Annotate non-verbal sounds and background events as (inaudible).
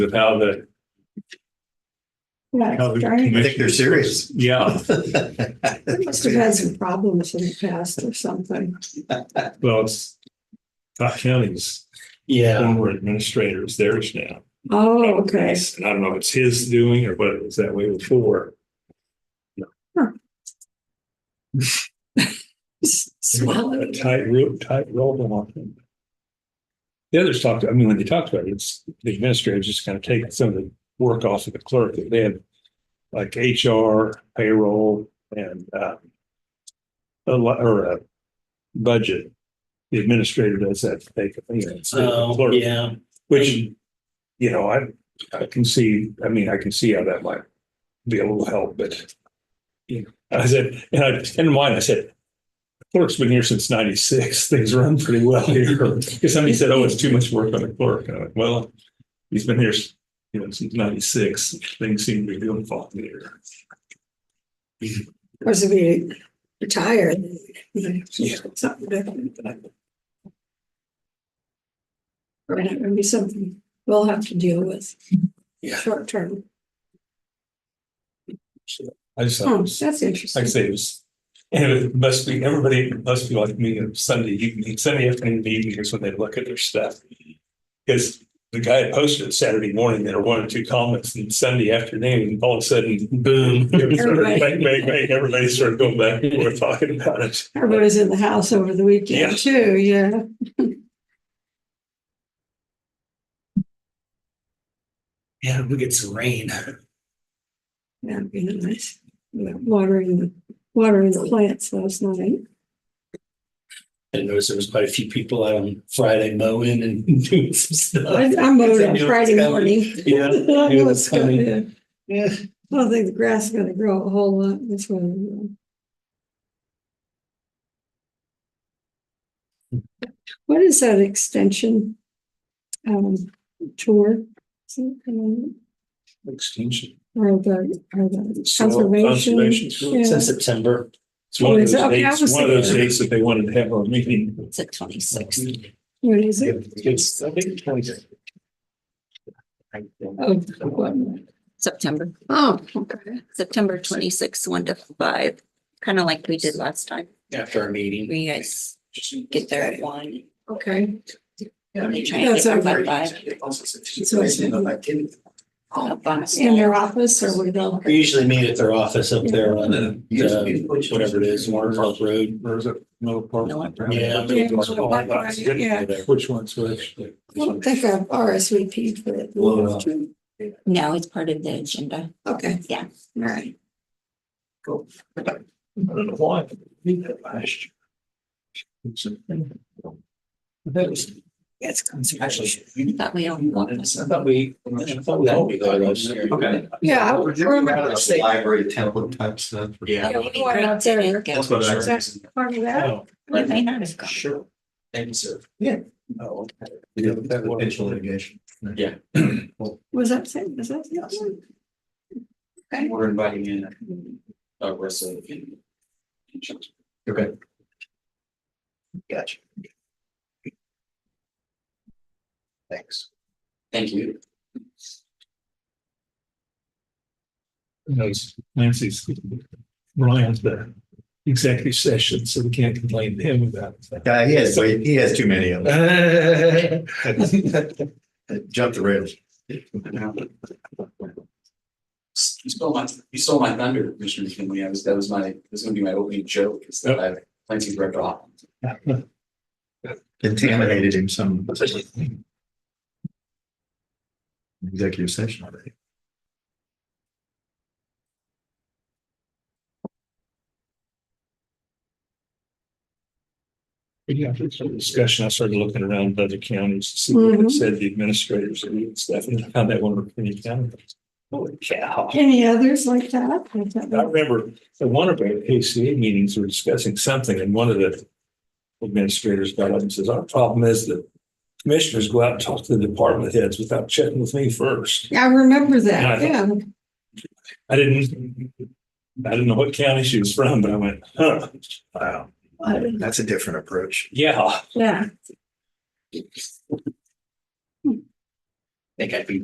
with how the, Yeah, how the darn, commission- I think they're serious. Yeah, they must have had some problems in the past or something. well, it's Cook County's Yeah, former administrator is theirs now. Oh, okay. And I don't know if it's his doing or whether it was that way before. Swallow. A tight rope, tight rope on them. The others talked, I mean, when they talked about it, it's the administrators just kind of taking some of the work off of the clerk. They had like HR, payroll and uh a lot, or uh budget. The administrator does that. They, you know, instead of the so, clerk. yeah, Which, you know, I, I can see, I mean, I can see how that might be a little help, but. You know, (laughs) I said, and I, in mind, I said. Clerk's been here since ninety-six, (laughs) things run pretty well here, because somebody said, oh, it's too much work on the clerk, and I went, well. He's been here, you know, since ninety-six, things seem to be doing fine here. Of course, if you retire, then something different. Or it would be something we'll have to deal with. Yeah. Short term. I just, thought it Oh, was- that's like I interesting. say, it was, and it must be, everybody must be like me on Sunday evening, Sunday afternoon, evening is when they look at their stuff. Because the guy had posted it Saturday morning, there were one or two comments, and Sunday afternoon, all of a sudden, (laughs) boom. it was sort of Bang, bang, bang, everybody started going back and forth talking about it. Everybody's in the house over the Yeah. weekend too, yeah. yeah, we get some rain. That'd be nice. Yeah, Watering, the watering the plants last night. I noticed there was quite a few people out on Friday mowing and (laughs) doing some Uh, stuff. I I mowed on Yeah. Friday morning. Yeah. I don't know what's Yeah, that's funny. gonna- Yeah. I don't think the grass is gonna grow a whole lot this way. What is that extension? Um, tour? Something, Extension. Or the, or the Soil conservation? conservation tour. Yeah. Since September. It's one Oh, of is those it? Okay, I dates, was one of those thinking- dates that they wanted to have our meeting. It's at twenty-six. What is it? It's, I think, twenty. Oh, what? September, Oh, okay. September twenty-sixth, one to five, kind of like we did last time. After our meeting. Where you guys get there at one. Okay. They try and That's get there by over. five. Up on- In their office or we go? We usually meet at their office up there on, uh, whatever it is, Warner Park Road. Or is it Miller Miller Park? Park. Yeah. Yeah, Miller Park, right, yeah. Which one's which? I don't think I've RSVP'd for it. Well, No, it's part of the agenda. Okay, Yeah. all right. I don't know why. I did that last year. That was That's actually. But we don't want this. I thought we, I thought we all we got last year. Okay. Yeah, I We're just remember out of the saying- Library template type stuff. Yeah. Yeah, we need to make it. what Is that part of that? Oh, We may not have gone. Sure. Thank you, sir. Yeah. Oh, okay. Yeah, that was potential litigation. Yeah. Was that same, was that? Yes. Okay. We're inviting in. Uh, Russell. Okay. Gotcha. Thanks. Thank you. knows Nancy's, Ryan's the executive session, so we can't complain to him about (laughs) that. Yeah, he has, way- he has too many of them. (laughs) Jump the rails. You stole my, you stole my thunder, Commissioner McKinley. I was, that was my, that was gonna be my opening joke, is that I plenty ripped off. Contaminated him some. Executive session already. Yeah, it's a Discussion, I started looking around other counties, to see what Mhm. it said the administrators and stuff, and found that one in Virginia County. Holy cow. Any others like that? I don't I know. remember at one of our ACA meetings, we were discussing something and one of the administrators got up and says, our problem is that commissioners go out and talk to the department heads without checking with me first. I remember Yeah, I that, yeah. I didn't, I didn't know what county she was from, but I went, huh, wow, I- That's a different approach. yeah. Yeah. Think I'd be